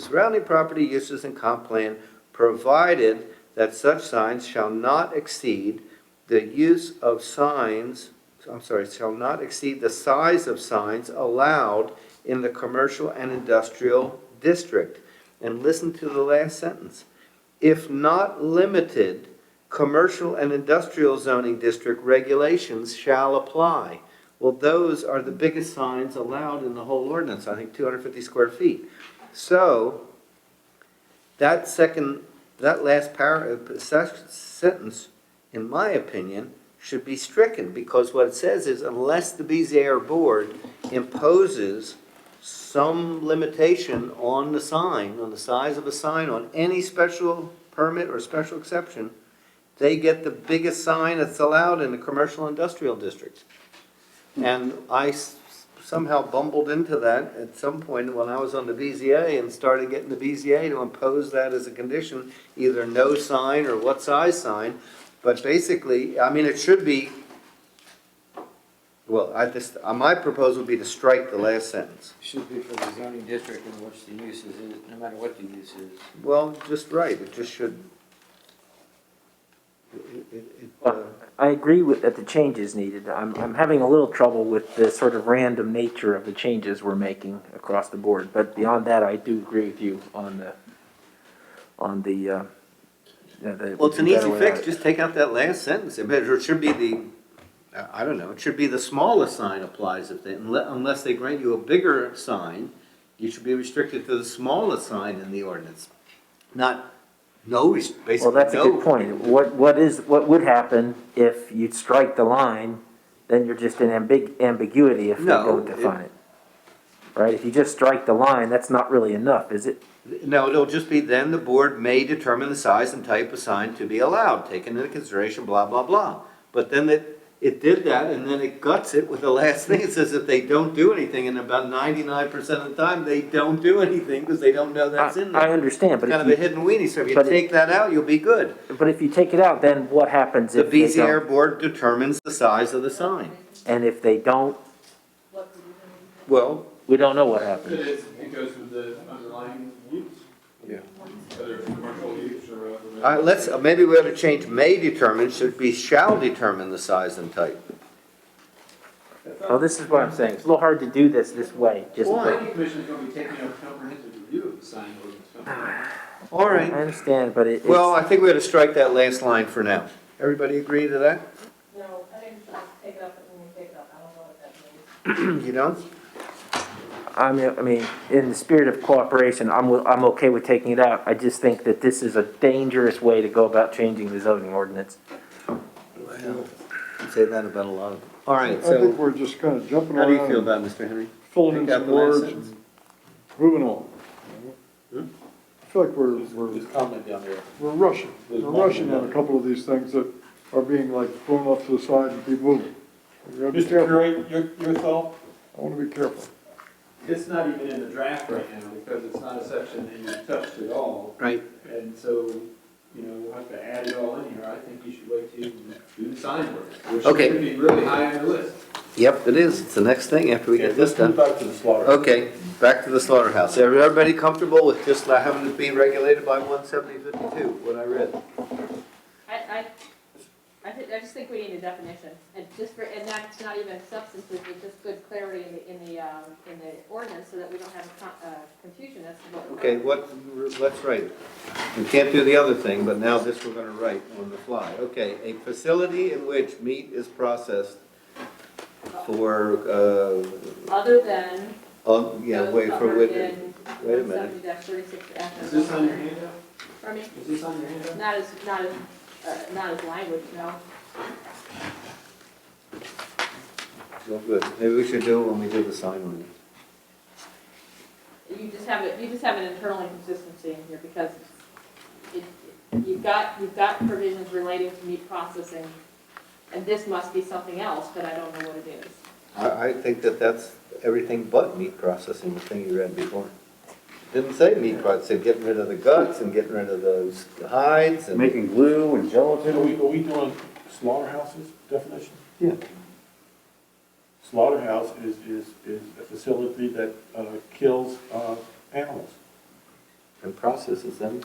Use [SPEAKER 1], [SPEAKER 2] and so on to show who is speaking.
[SPEAKER 1] surrounding property uses and comp plan, provided that such signs shall not exceed the use of signs, I'm sorry, shall not exceed the size of signs allowed in the commercial and industrial district. And listen to the last sentence. If not limited, commercial and industrial zoning district regulations shall apply. Well, those are the biggest signs allowed in the whole ordinance, I think two hundred fifty square feet. So, that second, that last par, uh, sec- sentence, in my opinion, should be stricken, because what it says is unless the BZA board imposes some limitation on the sign, on the size of a sign, on any special permit or special exception, they get the biggest sign that's allowed in the commercial industrial district. And I s- somehow bumbled into that at some point when I was on the BZA and started getting the BZA to impose that as a condition, either no sign or what size sign. But basically, I mean, it should be, well, I just, uh, my proposal would be to strike the last sentence.
[SPEAKER 2] Should be for the zoning district in which the use is, no matter what the use is.
[SPEAKER 1] Well, just right, it just should. it- it- it, uh,
[SPEAKER 3] I agree with, that the change is needed. I'm, I'm having a little trouble with the sort of random nature of the changes we're making across the board. But beyond that, I do agree with you on the, on the, uh, the- the.
[SPEAKER 1] Well, it's an easy fix,
[SPEAKER 3] just
[SPEAKER 1] just take out that last sentence, it better- it should be the, I- I don't know, it should be the smallest sign applies if they, unle- unless they grant you a bigger sign, you should be restricted to the smallest sign in the ordinance, not, no, res-
[SPEAKER 3] Well,
[SPEAKER 1] basically,
[SPEAKER 3] that's a good
[SPEAKER 1] no.
[SPEAKER 3] point. What, what is, what would happen if you strike the line, then you're just in ambig, ambiguity if they
[SPEAKER 1] No,
[SPEAKER 3] don't
[SPEAKER 1] it-
[SPEAKER 3] define it. Right? If you just strike the line, that's not really enough, is it?
[SPEAKER 1] No, it'll just be then the board may determine the size and type of sign to be allowed, taken into consideration, blah, blah, blah. But then it, it did that, and then it guts it with the last thing, it says if they don't do anything, and about ninety-nine percent of the time, they don't do anything, because they don't know that's
[SPEAKER 3] I,
[SPEAKER 1] in there.
[SPEAKER 3] I understand, but
[SPEAKER 1] kind of a
[SPEAKER 3] if you,
[SPEAKER 1] hidden weenie, so if you
[SPEAKER 3] but it-
[SPEAKER 1] take that out, you'll be good.
[SPEAKER 3] but if you take it out, then what happens
[SPEAKER 1] The
[SPEAKER 3] if they don't?
[SPEAKER 1] BZA board determines the size of the sign.
[SPEAKER 3] And if they don't,
[SPEAKER 1] Well,
[SPEAKER 3] we don't know what happens.
[SPEAKER 4] It is, it goes with the underlying use.
[SPEAKER 1] Yeah.
[SPEAKER 4] Whether it's commercial use or. uh,
[SPEAKER 1] uh, let's, uh, maybe we ought to change may determine, should be shall determine the size and type.
[SPEAKER 3] Well, this is what I'm saying. It's a little hard to do this this way, just.
[SPEAKER 1] Why?
[SPEAKER 4] The planning commission is gonna be taking a comprehensive review of the sign ordinance.
[SPEAKER 1] Ah.
[SPEAKER 4] company.
[SPEAKER 1] All
[SPEAKER 3] I
[SPEAKER 1] right,
[SPEAKER 3] understand, but it,
[SPEAKER 1] well,
[SPEAKER 3] it's,
[SPEAKER 1] I think we ought to strike that last line for now. Everybody agree to that?
[SPEAKER 5] No, I think just take it up and we take it up, I don't know what that means.
[SPEAKER 1] You don't?
[SPEAKER 3] I mean, I mean, in the spirit of cooperation, I'm, wi- I'm okay with taking it out. I just think that this is a dangerous way to go about changing the zoning ordinance.
[SPEAKER 1] Say that about a lot of. All right,
[SPEAKER 6] I think
[SPEAKER 1] so
[SPEAKER 6] we're just kind of jumping
[SPEAKER 1] how do you
[SPEAKER 6] around,
[SPEAKER 1] feel
[SPEAKER 6] and
[SPEAKER 1] about it, Mr. Henry?
[SPEAKER 6] filling in
[SPEAKER 1] Take out
[SPEAKER 6] some
[SPEAKER 1] the last
[SPEAKER 6] words,
[SPEAKER 1] sentence. Hmm?
[SPEAKER 6] and moving on. I feel like we're,
[SPEAKER 4] There's-
[SPEAKER 6] we're,
[SPEAKER 4] There's comment down there.
[SPEAKER 6] we're rushing,
[SPEAKER 4] There's
[SPEAKER 6] we're
[SPEAKER 4] one
[SPEAKER 6] rushing on a
[SPEAKER 4] more.
[SPEAKER 6] couple of these things that are being like thrown off to the side and keep moving. We gotta be
[SPEAKER 7] Mr.
[SPEAKER 6] careful,
[SPEAKER 7] Curate, your, your thought?
[SPEAKER 6] I wanna be careful.
[SPEAKER 4] It's not even in the draft right now because it's not a section that you touched at all.
[SPEAKER 1] Right.
[SPEAKER 4] And so, you know, we'll have to add it all in here. I think you should wait till you do the sign ordinance, which
[SPEAKER 1] Okay.
[SPEAKER 4] should be really high on the list.
[SPEAKER 1] Yep, it is, it's the next thing after we get this done.
[SPEAKER 7] Back to the slaughter.
[SPEAKER 1] Okay, back to the slaughterhouse. Everybody comfortable with just not having it being regulated by one seventy fifty-two, what I read?
[SPEAKER 5] I, I, I thi- I just think we need a definition, and just for, and that's not even substantive, but just good clarity in the, in the, um, in the ordinance, so that we don't have a con- uh, confusion as to what. we're-
[SPEAKER 1] Okay, what, let's write. We can't do the other thing, but now this we're gonna write on the fly. Okay, a facility in which meat is processed for, uh,
[SPEAKER 5] Other than.
[SPEAKER 1] oh, yeah,
[SPEAKER 5] those
[SPEAKER 1] wait, for
[SPEAKER 5] covered
[SPEAKER 1] witness.
[SPEAKER 5] in
[SPEAKER 1] Wait a minute.
[SPEAKER 5] 170-36 F.
[SPEAKER 4] Is this on your handout?
[SPEAKER 5] I mean,
[SPEAKER 4] Is this on your handout?
[SPEAKER 5] not as, not as, uh, not as language, no.
[SPEAKER 1] Well, good. Maybe we should do it when we do the sign one.
[SPEAKER 5] You just have it, you just have an internal inconsistency in here because it, you've got, you've got provisions relating to meat processing, and this must be something else, but I don't know what it is.
[SPEAKER 1] I, I think that that's everything but meat processing, the thing you read before. Didn't say meat processing, getting rid of the guts and getting rid of those hides and.
[SPEAKER 7] Making glue and gelatin. Are we, are we doing slaughterhouses definition?
[SPEAKER 1] Yeah.
[SPEAKER 7] Slaughterhouse is, is, is a facility that, uh, kills, uh, animals.
[SPEAKER 1] and processes them